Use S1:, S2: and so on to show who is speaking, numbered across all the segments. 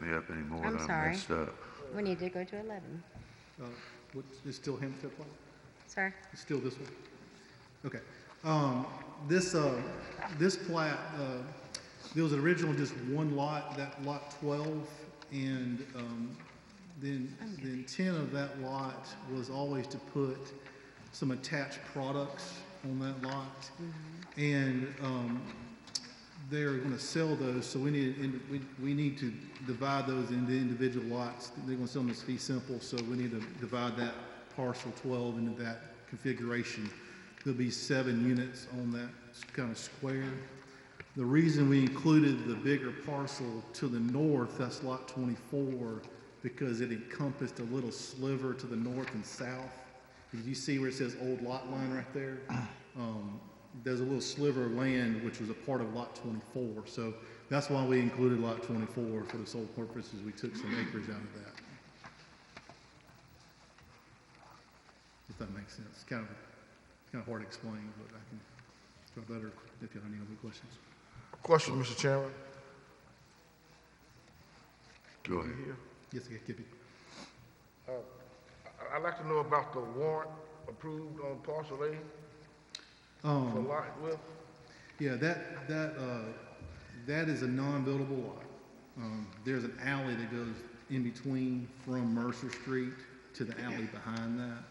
S1: me up anymore.
S2: I'm sorry.
S1: messed up.
S2: We need to go to 11.
S3: Uh, what's- Is still him to apply?
S2: Sir?
S3: It's still this one? Okay. Um, This, uh, this plat, uh, there was originally just one lot, that lot 12, and um, then the intent of that lot was always to put some attached products on that lot. And um, they're going to sell those, so we need, and we, we need to divide those into individual lots. They're going to sell them as fee simple, so we need to divide that parcel twelve into that configuration. There'll be seven units on that kind of square. The reason we included the bigger parcel to the north, that's lot twenty-four, because it encompassed a little sliver to the north and south. Did you see where it says old lot line right there? Um, there's a little sliver of land which was a part of lot twenty-four, so that's why we included lot twenty-four for the sole purpose is we took some acreage out of that. If that makes sense, kind of, kind of hard to explain, but I can try better if y'all have any other questions.
S4: Question, Mr. Chairman?
S1: Go ahead.
S3: Yes, I get it.
S4: I- I'd like to know about the warrant approved on parcel A for
S3: Um,
S4: lot with,
S3: yeah, that, that, uh, that is a non-buildable lot. Um, there's an alley that goes in between from Mercer Street to the alley behind that.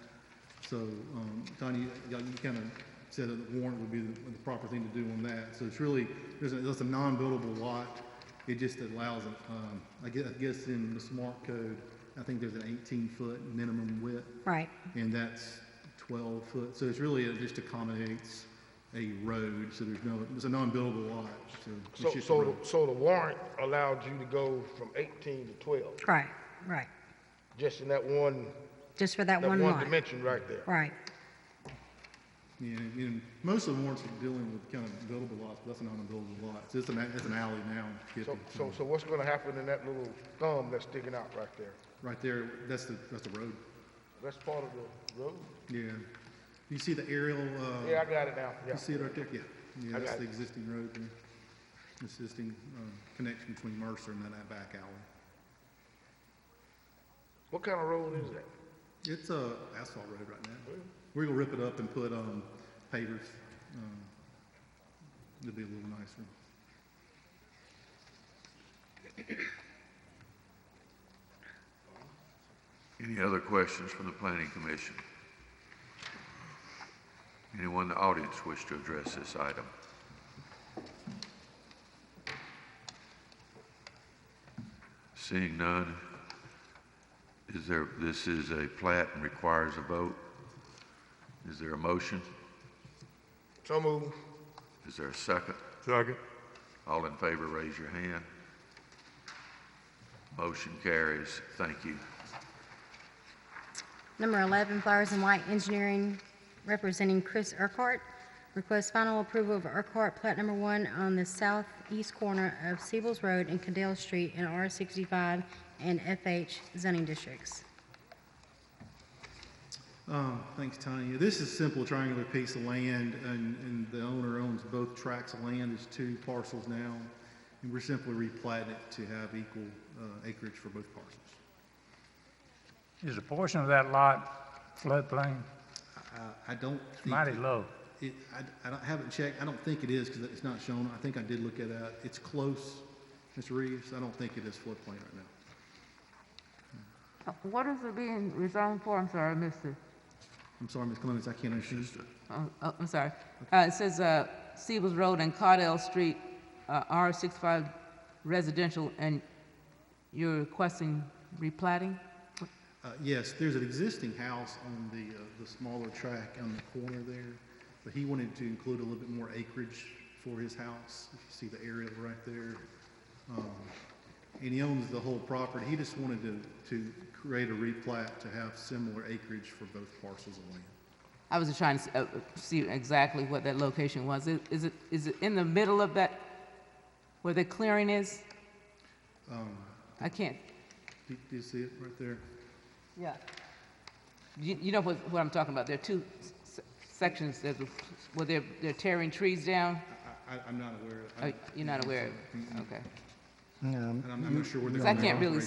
S3: So, um, Tony, you, you kind of said that the warrant would be the, the proper thing to do on that. So it's really, there's a, that's a non-buildable lot. It just allows, um, I guess, I guess in the smart code, I think there's an eighteen-foot minimum width.
S2: Right.
S3: and that's 12 foot. So it's really, it just accommodates a road, so there's no, it's a non-buildable lot, so
S4: so,
S3: it's just a
S4: so,
S3: road.
S4: the- so the warrant allowed you to go from 18 to 12,
S2: Right, right.
S4: just in that one,
S2: Just for that
S4: that
S2: one
S4: one
S2: lot.
S4: dimension right there.
S2: Right,
S3: Yeah, and and most of the warrants are dealing with kind of buildable lots, but that's a non-buildable lot. So it's an, it's an alley now, Skip,
S4: So,
S3: it's,
S4: so, so what's gonna happen in that little thumb that's sticking out right there?
S3: right there, that's the, that's the road.
S4: That's part of the road?
S3: Yeah. You see the aerial,
S4: Yeah,
S3: uh,
S4: I got it now, yeah.
S3: you see it right there? Yeah, yeah,
S4: I
S3: that's
S4: got
S3: the
S4: it.
S3: existing road there. Existing, uh, connection between Mercer and that back alley.
S4: What kind of road is that?
S3: It's a asphalt road right now. We're gonna rip it up and put, um, pavers. Um, It'll be a little nicer.
S1: Any other questions from the planning commission? Anyone in the audience wish to address this item? Seeing none, is there, this is a plat and requires a vote. Is there a motion?
S4: So move.
S1: Is there a second?
S4: Second.
S1: All in favor, raise your hand. Motion carries. Thank you.
S2: Number 11, Flowers and White Engineering, representing Chris Urquhart, requests final approval of Urquhart Plat Number 1 on the southeast corner of Siebel's Road and Cadell Street in R65 and FH zoning districts.
S3: Um, thanks, Tanya. This is a simple triangular piece of land, and, and the owner owns both tracts of land. There's two parcels now, and we're simply replating it to have equal uh, acreage for both parcels.
S5: Is a portion of that lot floodplain?
S3: I, I don't think,
S5: Mighty low.
S3: it, I, I don't- haven't checked. I don't think it is, because it's not shown. I think I did look at that. It's close, Mr. Reeves. I don't think it is floodplain right now.
S6: Uh, What is it being rezoned for? I'm sorry, I missed it.
S3: I'm sorry, Ms. Clemens, I can't understand.
S6: Oh, oh, I'm sorry. Uh, It says uh, Stevens Road and Cardell Street, uh, R65 residential, and you're requesting replating?
S3: Uh, Yes, there's an existing house on the, uh, the smaller track on the corner there, but he wanted to include a little bit more acreage for his house. If you see the aerial right there. Um, And he owns the whole property. He just wanted to, to create a replat to have similar acreage for both parcels of land.
S6: I was just trying to s- uh, uh, see exactly what that location was. Is is it, is it in the middle of that, where the clearing is? I can't,
S3: Do do you see it right there?
S6: yeah. You you know what what I'm talking about? There are two s- s- sections, there's, a- where they're they're tearing trees down?
S3: I, I, I'm not aware. of-
S6: Oh,
S3: I-
S6: you're not aware of
S3: Mm-mm.
S6: it? Okay.
S7: And I'm I'm not sure where they're
S3: So I
S7: going.
S3: can't really